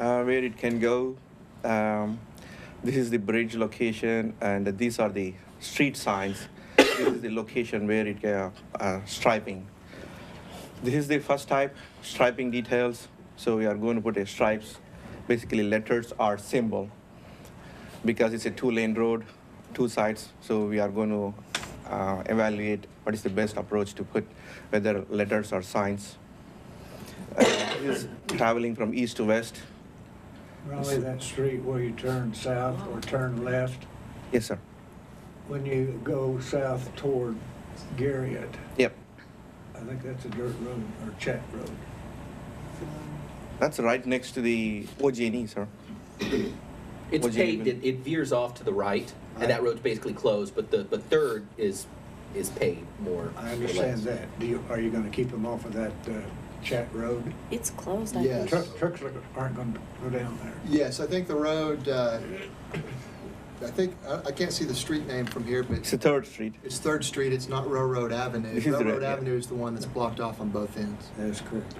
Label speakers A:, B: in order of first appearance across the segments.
A: uh, where it can go. Um, this is the bridge location, and these are the street signs. this is the location where it can uh, striping. This is the first type, striping details. So we are going to put a stripes, basically letters or symbol, because it's a two-lane road, two sides. So we are going to uh, evaluate what is the best approach to put, whether letters or signs. Uh, this is traveling from east to west.
B: Raleigh, that street where you turn south or turn left,
A: Yes, sir.
B: when you go south toward Garriott,
A: Yep.
B: I think that's a dirt road or chat road.
A: That's right next to the OG&E, E, sir.
C: It's
A: What'd you
C: paved,
A: even-
C: it, it veers off to the right,
B: I-
C: and that road's basically closed, but the, but third is, is paved more.
B: I
C: or less.
B: understand that. Do you, are you gonna keep them off of that, uh, chat road?
D: It's closed, I
B: Tru-
D: think.
E: Yes.
B: Trucks are- aren't gonna go down there.
E: Yes, I think the road, uh, I think, I I can't see the street name from here, but
A: It's the third street.
E: it's Third Street, it's not Railroad Avenue.
A: This is the road,
E: Railroad
A: yeah.
E: Avenue is the one that's blocked off on both ends.
B: That's correct.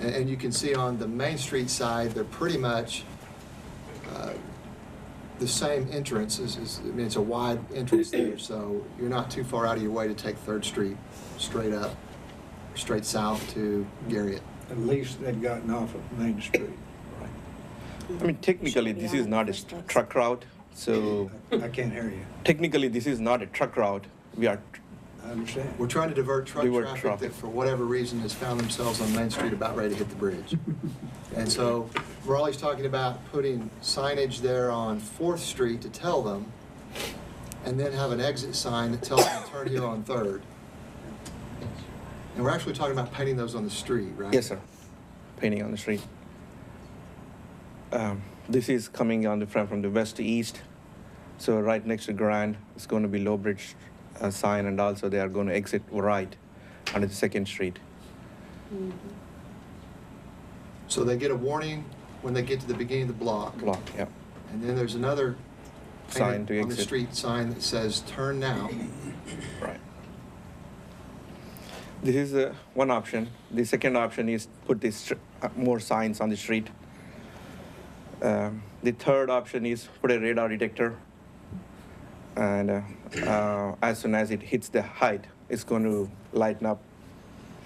E: And, and you can see on the Main Street side, they're pretty much uh, the same entrance, is, is, I mean, it's a wide entrance there, so you're not too far out of your way to take Third Street straight up, straight south to Garriott.
B: At least they've gotten off of Main Street.
A: I mean, technically,
D: Should be
A: this is
D: on
A: not a
D: first
A: tr-
D: place.
A: truck route. So
B: I I can't hear you.
A: technically, this is not a truck route. We are,
B: I understand.
E: We're trying to divert truck
A: Divert
E: traffic
A: traffic.
E: that, for whatever reason, has found themselves on Main Street about ready to hit the bridge. And so we're always talking about putting signage there on Fourth Street to tell them, and then have an exit sign that tells them to turn here on Third. And we're actually talking about painting those on the street, right?
A: yes, sir, painting on the street. Um, this is coming on the front from the west to east. So right next to Grand, it's going to be Low Bridge uh, sign, and also they are going to exit right onto the second street.
E: So they get a warning when they get to the beginning of the block.
A: Block, yeah.
E: And then there's another
A: Sign
E: painted
A: to
E: on the
A: exit.
E: street sign that says, turn now.
A: Right. This is uh, one option. The second option is put this str- uh, more signs on the street. Um, the third option is put a radar detector, and uh, uh, as soon as it hits the height, it's going to lighten up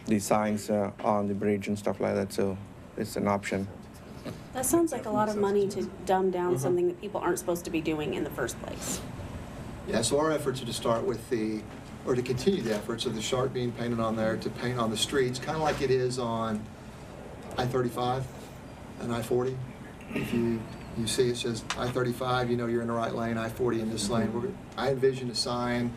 A: the signs uh, on the bridge and stuff like that. So it's an option.
D: That sounds like a lot of money to dumb down
A: Mm-hmm.
D: something that people aren't supposed to be doing in the first place.
E: Yeah, so our efforts are to start with the, or to continue the efforts of the shark being painted on there to paint on the streets, kind of like it is on I-35 and I-40. If you, you see it says I-35, you know you're in the right lane, I-40 in this lane. We're- I envision a sign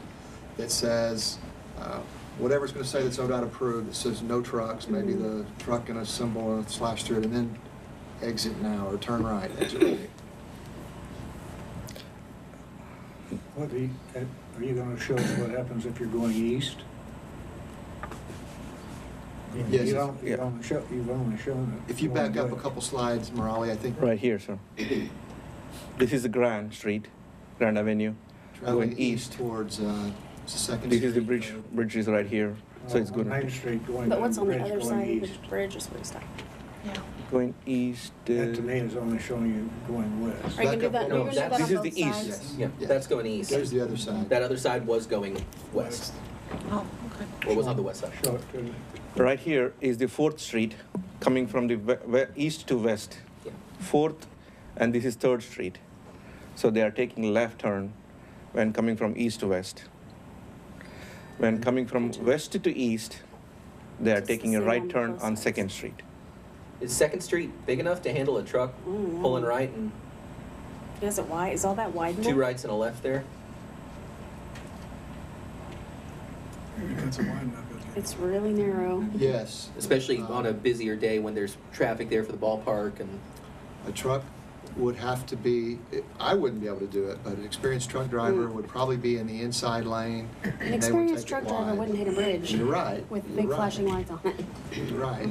E: that says, uh, whatever it's going to say that's ODOT approved, that says no trucks, maybe the truck and a symbol and slash through it, and then exit now, or turn right, exit right.
B: What are you, uh, are you gonna show us what happens if you're going east?
E: Yes,
B: You don't,
A: yeah.
B: you've only shown, you've only shown it.
E: If you
B: one
E: back up a
B: way.
E: couple slides, Morale, I think
A: Right here, sir. this is the Grand Street, Grand Avenue,
E: Traveling east towards, uh, it's the second.
A: This is the
E: street.
A: bridge. Bridge is right here, so it's
B: On
A: going
B: Uh, Main
A: to
B: Street going
D: But
B: down
D: what's
B: the
D: on the
B: bridge
D: other
B: going
D: side of
B: east.
D: the bridge is where you stop.
A: going east. Uh,
B: That to me is only showing you going west.
D: Are you gonna do
E: Back
D: that,
E: up
D: are you
E: on-
D: gonna do that on
A: This
D: both
A: is
D: sides?
A: the east.
E: Yes.
C: Yeah, that's going east.
E: There's the other side.
C: That other side was going west,
F: Oh, okay.
C: or was on the west side.
B: Show it to me.
A: Right here is the Fourth Street, coming from the we- we- east to west.
C: Yeah.
A: Fourth, and this is Third Street. So they are taking left turn when coming from east to west. When
D: Mm-hmm.
A: coming from west to east, they are
D: It's the
A: taking a
D: same
A: right
D: on
A: turn
D: both
A: on
D: sides.
A: Second Street.
C: Is Second Street big enough to handle a truck
D: Mm, yeah.
C: pulling right and
D: Is it wide, is all that widened?
C: two rights and a left there?
D: It's really narrow.
E: Yes.
C: Especially
E: Uh,
C: on a busier day when there's traffic there for the ballpark and,
E: A truck would have to be, I wouldn't be able to do it, but an experienced truck driver
D: Mm.
E: would probably be in the inside lane.
D: An experienced truck driver wouldn't hit a bridge
E: You're right.
D: with
E: you're
D: big
E: right,
D: flashing lights on it.
E: You're right.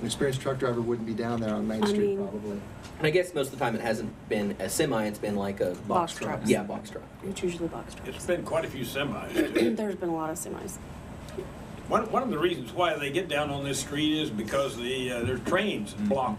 E: An experienced truck driver wouldn't be down there on Main
D: I
E: Street
D: mean-
E: probably.
C: and I guess most of the time it hasn't been a semi, it's been like a.
D: Box trucks.
C: Yeah, box truck.
D: It's usually box trucks.
G: It's been quite a few semis. too.
D: There's been a lot of semis.
G: One, one of the reasons why they get down on this street is because the, uh, their trains block